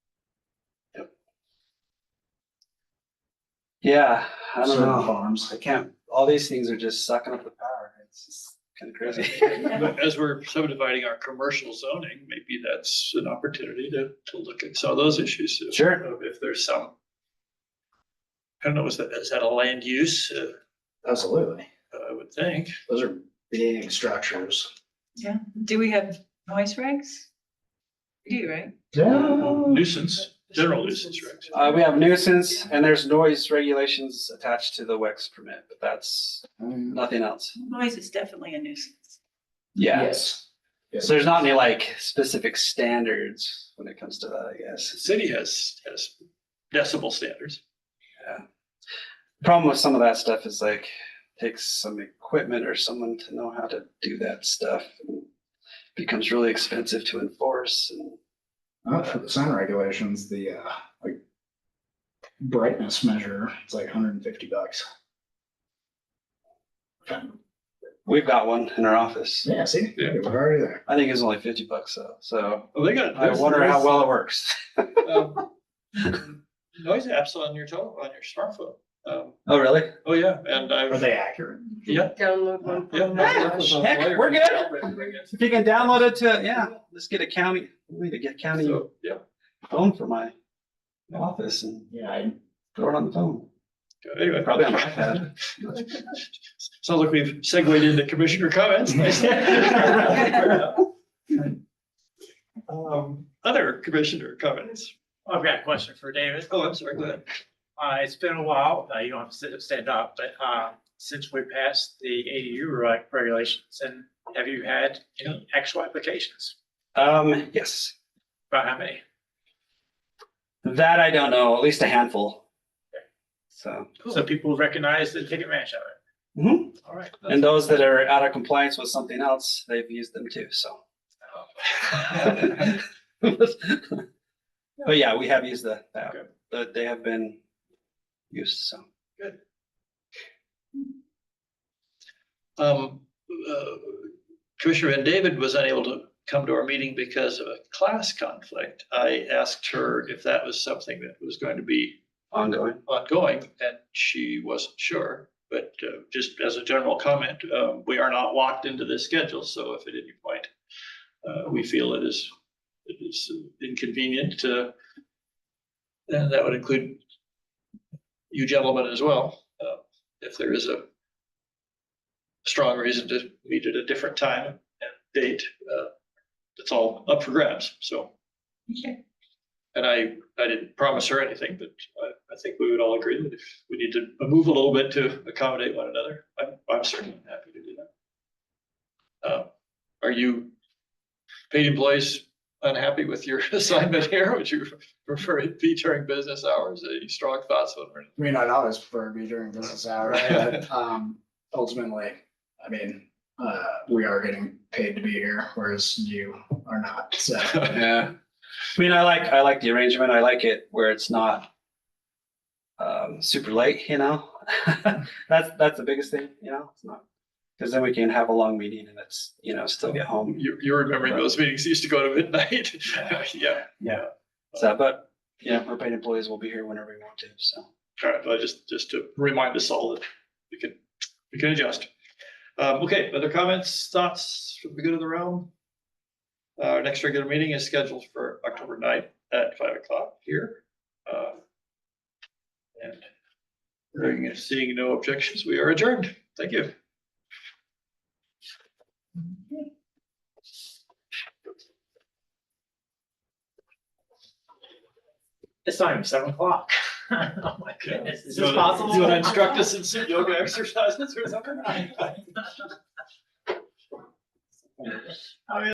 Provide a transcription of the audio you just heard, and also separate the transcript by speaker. Speaker 1: Yeah, I don't
Speaker 2: Certain
Speaker 1: know.
Speaker 2: Farms.
Speaker 1: I can't, all these things are just sucking up the power. It's just kind of crazy.
Speaker 3: But as we're subdividing our commercial zoning, maybe that's an opportunity to, to look at some of those issues. if- uh,
Speaker 1: Sure.
Speaker 3: If there's some. I don't know, is that, is that a land use? Uh,
Speaker 2: Absolutely.
Speaker 3: I would think.
Speaker 2: Those are big structures.
Speaker 4: Yeah, do we have noise regs? We do, right?
Speaker 3: Nuisance, general nuisance regs.
Speaker 1: Uh, we have nuisance and there's noise regulations attached to the WEX permit, but that's nothing else.
Speaker 4: Noise is definitely a nuisance.
Speaker 1: Yeah.
Speaker 2: Yes.
Speaker 1: So there's not any like specific standards when it comes to that, I guess.
Speaker 3: City has, has decibel standards.
Speaker 1: Problem with some of that stuff is like takes some equipment or someone to know how to do that stuff. Becomes really expensive to enforce and
Speaker 2: Uh, for the sound regulations, the uh, like brightness measure, it's like hundred and fifty bucks.
Speaker 1: we've got one in our office.
Speaker 2: Yeah, see,
Speaker 3: Yeah.
Speaker 2: we're already there.
Speaker 1: I think it's only fifty bucks though, so
Speaker 3: Well, they got.
Speaker 1: I wonder how well it works.
Speaker 3: well. um, Noise apps on your toe, on your smartphone. Um,
Speaker 1: Oh, really?
Speaker 3: oh yeah, and
Speaker 2: Are
Speaker 3: I've,
Speaker 2: they accurate?
Speaker 3: yeah,
Speaker 5: Download one.
Speaker 3: yeah.
Speaker 5: from-
Speaker 3: no, that was on
Speaker 1: Heck,
Speaker 3: Wired.
Speaker 1: we're If you can download it to, yeah, let's get a county, we need to get county
Speaker 3: So, yeah.
Speaker 1: phone for my office and
Speaker 2: Yeah, I,
Speaker 1: throw it on the phone.
Speaker 3: Anyway.
Speaker 1: Probably on my iPad.
Speaker 3: Sounds like we've segued into commissioner comments. Um, Other commissioner comments.
Speaker 6: I've got a question for David.
Speaker 3: Oh, I'm sorry, go ahead.
Speaker 6: Uh, it's been a while, uh, you don't have to sit- stand up, but, uh, since we passed the ADU reg- regulations, and have you had any actual applications?
Speaker 1: Um, yes,
Speaker 6: About how many?
Speaker 1: that I don't know, at least a handful. So,
Speaker 6: So people recognize and take advantage of it.
Speaker 1: mhm.
Speaker 6: All right.
Speaker 1: and those that are out of compliance with something else, they've used them too, so. But yeah, we have used the, the app,
Speaker 3: Good.
Speaker 1: but they have been used, so.
Speaker 3: Um, uh, Commissioner Van David was unable to come to our meeting because of a class conflict. I asked her if that was something that was going to be
Speaker 1: Ongoing.
Speaker 3: ongoing, and she wasn't sure. But uh, just as a general comment, uh, we are not locked into this schedule, so if at any point uh, we feel it is, it is inconvenient, uh, then that would include you gentlemen as well, uh, if there is a strong reason to meet at a different time and date, uh, it's all up for grabs, so.
Speaker 4: Okay.
Speaker 3: And I, I didn't promise her anything, but I, I think we would all agree that if we need to move a little bit to accommodate one another, I'm, I'm certainly happy to do that. Uh, Are you paid employees unhappy with your assignment here? Would you prefer it be during business hours? Any strong thoughts on it?
Speaker 2: I mean, I'd always prefer to be during business hours, but, um, ultimately, I mean, uh, we are getting paid to be here, whereas you are not, so.
Speaker 1: Yeah. I mean, I like, I like the arrangement. I like it where it's not um, super late, you know? That's, that's the biggest thing, you know, it's not, because then we can have a long meeting and it's, you know, still get home.
Speaker 3: You, you're remembering those meetings used to go to midnight? Yeah,
Speaker 1: So, but, you know, our paid employees will be here whenever we want to, so.
Speaker 3: All right, but just, just to remind us all that we can, we can adjust. Um, okay, other comments, thoughts from the good of the realm? Uh, Our next regular meeting is scheduled for October 9th at five o'clock here. Uh, And hearing and seeing no objections, we are adjourned. Thank you.
Speaker 6: It's not even seven o'clock. Oh my goodness, is
Speaker 3: You
Speaker 6: this
Speaker 3: wanna-
Speaker 6: possible?
Speaker 3: You want to instruct us in some yoga exercises or something?